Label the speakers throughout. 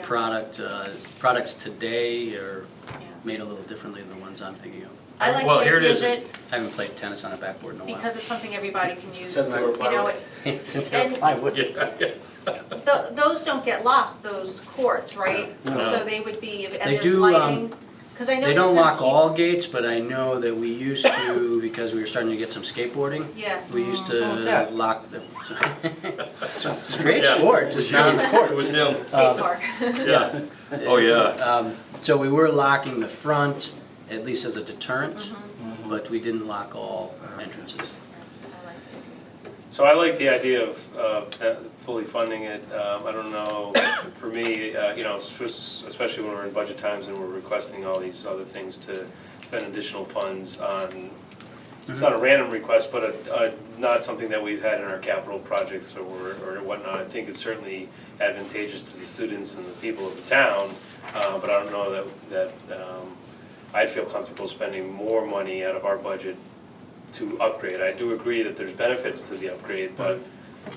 Speaker 1: product, uh, products today are
Speaker 2: Yeah.
Speaker 1: made a little differently than the ones I'm thinking of.
Speaker 2: I like
Speaker 3: Well,
Speaker 2: the
Speaker 3: here it
Speaker 2: idea
Speaker 3: is.
Speaker 2: of it
Speaker 1: I haven't played tennis on a backboard in a while.
Speaker 2: because it's something everybody can use.
Speaker 4: Since they were
Speaker 2: You know,
Speaker 4: plywood.
Speaker 2: it-
Speaker 1: Since I
Speaker 2: and-
Speaker 1: plywood.
Speaker 3: Yeah, yeah.
Speaker 2: tho- those don't get locked, those courts, right?
Speaker 1: No.
Speaker 2: So they would be, and
Speaker 1: They
Speaker 2: there's
Speaker 1: do, um,
Speaker 2: lighting, because I know.
Speaker 1: They
Speaker 2: you
Speaker 1: don't
Speaker 2: couldn't
Speaker 1: lock
Speaker 2: keep-
Speaker 1: all gates, but I know that we used to, because we were starting to get some skateboarding,
Speaker 2: Yeah.
Speaker 1: we used to
Speaker 4: yeah.
Speaker 1: lock them. So- It's a great
Speaker 3: Yeah.
Speaker 1: sport, just not on the
Speaker 3: It was
Speaker 1: courts.
Speaker 3: him,
Speaker 2: State park.
Speaker 3: yeah. Oh, yeah.
Speaker 1: Um, So we were locking the front, at least as a deterrent,
Speaker 2: Mm-hmm.
Speaker 1: but we didn't lock all entrances.
Speaker 2: I like it.
Speaker 5: So I like the idea of, of that- fully funding it. Um, I don't know, for me, uh, you know, s- especially when we're in budget times and we're requesting all these other things to spend additional funds on, it's not a random request, but a, a, not something that we've had in our capital projects or, or whatnot. I think it's certainly advantageous to the students and the people of the town, uh, but I don't know that, that, um, I'd feel comfortable spending more money out of our budget to upgrade. I do agree that there's benefits to the upgrade, but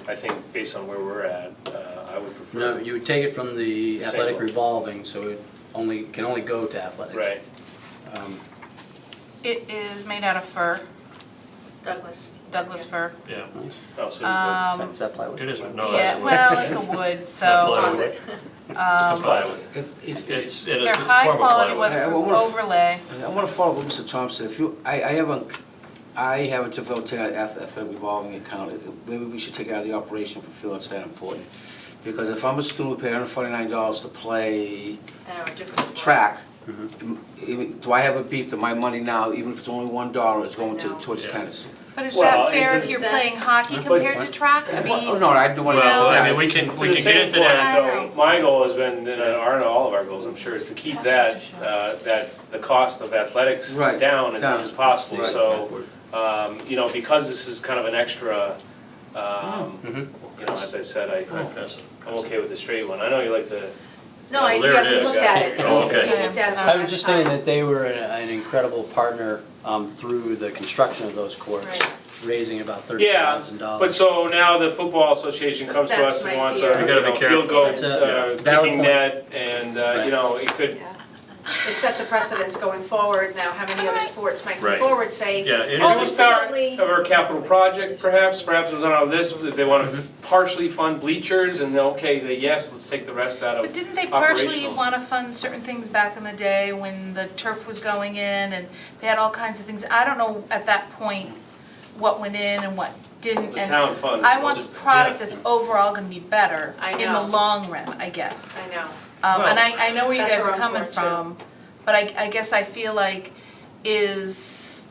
Speaker 5: I think based on where we're at, uh, I would prefer.
Speaker 1: No, you would take it from the athletic revolving, so it only, can only go to athletics.
Speaker 5: Right,
Speaker 1: Um,
Speaker 6: It is made out of fur,
Speaker 2: Douglas.
Speaker 6: Douglas fur.
Speaker 3: Yeah,
Speaker 5: oh, so you
Speaker 1: Is
Speaker 5: could-
Speaker 6: Um,
Speaker 1: that- is that plywood?
Speaker 3: it is, no, that's
Speaker 6: Yeah,
Speaker 3: a wood.
Speaker 6: well, um, it's a wood,
Speaker 1: Oh,
Speaker 3: Plywood.
Speaker 6: so Uh,
Speaker 2: Toss it.
Speaker 3: It's a plywood.
Speaker 4: If, if, if,
Speaker 3: It's, it is,
Speaker 6: they're
Speaker 3: it's a
Speaker 6: high
Speaker 3: form of
Speaker 6: quality
Speaker 3: plywood.
Speaker 6: with
Speaker 4: Yeah, I wanna-
Speaker 6: overlay.
Speaker 4: I wanna follow up Mr. Thompson, if you, I, I haven't, I haven't developed an ath- athletic revolving account, maybe we should take it out of the operation for feel it's that important. Because if I'm a student who paid hundred forty-nine dollars to play
Speaker 2: I don't know, different sport.
Speaker 4: track,
Speaker 5: Mm-hmm.
Speaker 4: even- do I have a beef that my money now, even if it's only one dollar, is going to,
Speaker 2: No.
Speaker 4: towards
Speaker 3: Yeah.
Speaker 4: tennis?
Speaker 6: But is
Speaker 5: Well,
Speaker 6: that fair
Speaker 5: it's
Speaker 6: if
Speaker 5: a-
Speaker 6: you're playing
Speaker 2: That's-
Speaker 6: hockey compared
Speaker 1: But-
Speaker 6: to track? I
Speaker 4: Well,
Speaker 6: mean,
Speaker 4: No, I do want to.
Speaker 3: Well, I mean, we can,
Speaker 5: To
Speaker 3: we
Speaker 5: the
Speaker 3: can
Speaker 5: same
Speaker 3: get into
Speaker 5: point,
Speaker 3: that.
Speaker 5: though, My goal has been, and are in all of our goals, I'm sure, is to keep
Speaker 6: Pass
Speaker 5: that,
Speaker 6: it to
Speaker 5: uh, that, the cost of athletics
Speaker 4: Right,
Speaker 5: down as much
Speaker 4: down.
Speaker 5: as possible.
Speaker 1: Right,
Speaker 5: So,
Speaker 1: backward.
Speaker 5: um, you know, because this is kind of an extra, um,
Speaker 1: Mhm.
Speaker 5: you know, as I said, I,
Speaker 3: Impressive.
Speaker 5: I'm okay with the straight one. I know you like the,
Speaker 2: No, I,
Speaker 3: Well, there
Speaker 2: yeah,
Speaker 3: it
Speaker 2: we
Speaker 3: is.
Speaker 2: looked at it.
Speaker 3: Oh,
Speaker 2: We-
Speaker 3: okay.
Speaker 2: We looked at it.
Speaker 6: Yeah.
Speaker 1: I was just
Speaker 2: uh,
Speaker 1: thinking that they were an- an incredible partner um, through the construction of those courts,
Speaker 2: Right.
Speaker 1: raising about thirty
Speaker 5: Yeah,
Speaker 1: thousand
Speaker 5: but
Speaker 1: dollars.
Speaker 5: so now the football association comes to
Speaker 2: That's
Speaker 5: us and
Speaker 2: my
Speaker 5: wants
Speaker 2: fear.
Speaker 5: our,
Speaker 2: You
Speaker 5: you
Speaker 3: gotta be
Speaker 5: know,
Speaker 3: careful.
Speaker 5: field goals,
Speaker 2: That's
Speaker 1: a-
Speaker 5: uh,
Speaker 1: Valid
Speaker 5: kicking
Speaker 1: point.
Speaker 5: net, and, uh,
Speaker 1: Right.
Speaker 5: you know, it could,
Speaker 2: It sets a precedence going forward now, how many other sports might come
Speaker 3: Right.
Speaker 2: forward, say,
Speaker 3: Yeah, it
Speaker 2: oh,
Speaker 3: is-
Speaker 2: this is
Speaker 5: Part
Speaker 2: only,
Speaker 5: Of our capital project perhaps, perhaps it was on our list, if they wanna
Speaker 7: Mm-hmm.
Speaker 5: partially fund bleachers and then, okay, the yes, let's take the rest out
Speaker 6: but
Speaker 5: of.
Speaker 6: didn't they partially
Speaker 5: Operational.
Speaker 6: want to fund certain things back in the day when the turf was going in and they had all kinds of things? I don't know at that point what went in and what didn't.
Speaker 5: The
Speaker 6: and
Speaker 5: town fund.
Speaker 6: I want the product
Speaker 3: Yeah.
Speaker 6: that's overall going to be better
Speaker 2: I
Speaker 6: in the
Speaker 2: know.
Speaker 6: long run, I guess.
Speaker 2: I know.
Speaker 6: Um, and I, I know where you
Speaker 2: Well, that's
Speaker 6: guys are
Speaker 2: where I'm
Speaker 6: coming
Speaker 2: for, too.
Speaker 6: from, but I, I guess I feel like is,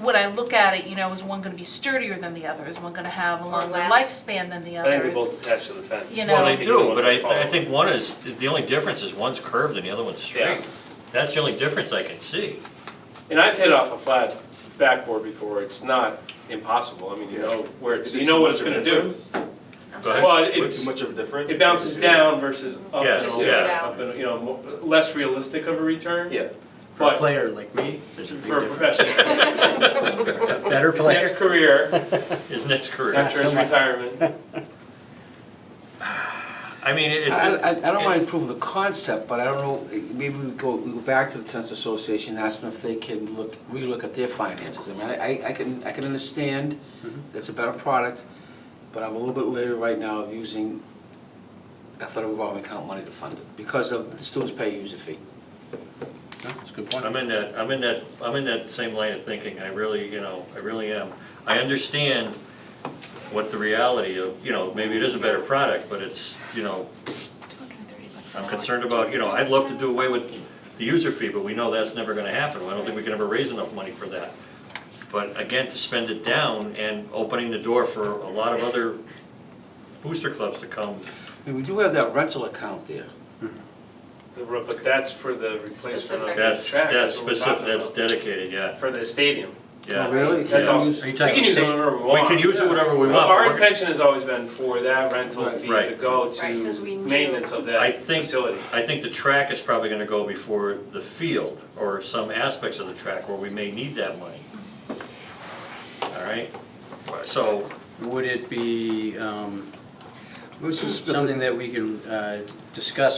Speaker 6: when I look at it, you know, is one gonna be sturdier than the other? Is one gonna have a longer
Speaker 2: last.
Speaker 6: lifespan than the
Speaker 5: I
Speaker 6: other?
Speaker 5: think they both attach to the fence.
Speaker 6: You know.
Speaker 3: Well, they do,
Speaker 5: Ones
Speaker 3: but
Speaker 5: that
Speaker 3: I, I
Speaker 5: follow.
Speaker 3: think one is, the only difference is one's curved and the other one's straight.
Speaker 5: Yeah.
Speaker 3: That's the only difference I can see.
Speaker 5: And I've hit off a flat backboard before, it's not impossible, I mean, you know where it's,
Speaker 7: Is
Speaker 5: you
Speaker 7: it
Speaker 5: know
Speaker 7: too
Speaker 5: what it's
Speaker 7: much of a
Speaker 5: gonna do.
Speaker 7: difference?
Speaker 2: I'm
Speaker 3: Go
Speaker 2: sorry.
Speaker 3: ahead.
Speaker 5: Well,
Speaker 7: What,
Speaker 5: it's,
Speaker 7: too much of a difference? oh,
Speaker 5: it bounces down versus up
Speaker 3: Yeah,
Speaker 5: and
Speaker 2: Just
Speaker 5: over,
Speaker 2: yeah.
Speaker 5: up and, you know, mo- less realistic of a return.
Speaker 7: Yeah.
Speaker 1: For a
Speaker 5: But
Speaker 1: player like me, there's a big
Speaker 5: for a
Speaker 1: difference.
Speaker 5: professional,
Speaker 1: Better
Speaker 5: his next
Speaker 1: player.
Speaker 5: career,
Speaker 3: His next career.
Speaker 5: after his retirement,
Speaker 3: I mean, it,
Speaker 4: I,
Speaker 3: it-
Speaker 4: I, I don't mind improving the concept, but I don't know, maybe we go, we go back to the tennis association, and ask them if they can look, relook at their finances. I mean, I- I, I can, I can understand
Speaker 1: Mm-hmm.
Speaker 4: it's a better product, but I'm a little bit leery right now of using athletic revolving account money to fund it, because of the students pay user fee.
Speaker 1: No, That's a good point.
Speaker 3: I'm in that, I'm in that, I'm in that same line of thinking, I really, you know, I really am. I understand what the reality of, you know, maybe it is a better product, but it's, you know, I'm concerned about, you know, I'd love to do away with the user fee, but we know that's never gonna happen. I don't think we can ever raise enough money for that. But again, to spend it down and opening the door for a lot of other booster clubs to come.
Speaker 4: I mean, we do have that rental account there.
Speaker 5: but that's for the replacement of the track.
Speaker 3: That's, that's
Speaker 5: what we're
Speaker 3: specific,
Speaker 5: talking
Speaker 3: that's
Speaker 5: about.
Speaker 3: dedicated, yeah,
Speaker 5: For the stadium.
Speaker 3: yeah.
Speaker 4: Oh, Really?
Speaker 5: That's
Speaker 3: Yeah.
Speaker 5: all.
Speaker 1: Are you talking
Speaker 5: We can use it
Speaker 1: state-
Speaker 5: whenever we
Speaker 3: We
Speaker 5: want.
Speaker 3: can use it whatever we
Speaker 5: Well,
Speaker 3: want. but
Speaker 5: Our
Speaker 3: we're-
Speaker 5: intention has always been for that rental
Speaker 4: Right.
Speaker 5: fee
Speaker 3: Right.
Speaker 5: to go
Speaker 2: Right, 'cause
Speaker 5: to
Speaker 2: we knew-
Speaker 5: maintenance of
Speaker 3: I
Speaker 5: that
Speaker 3: think-
Speaker 5: facility.
Speaker 3: I think the track is probably gonna go before the field, or some aspects of the track where we may need that money. All right, so,
Speaker 1: Would it be um,
Speaker 4: Where's the-
Speaker 1: something that we can uh, discuss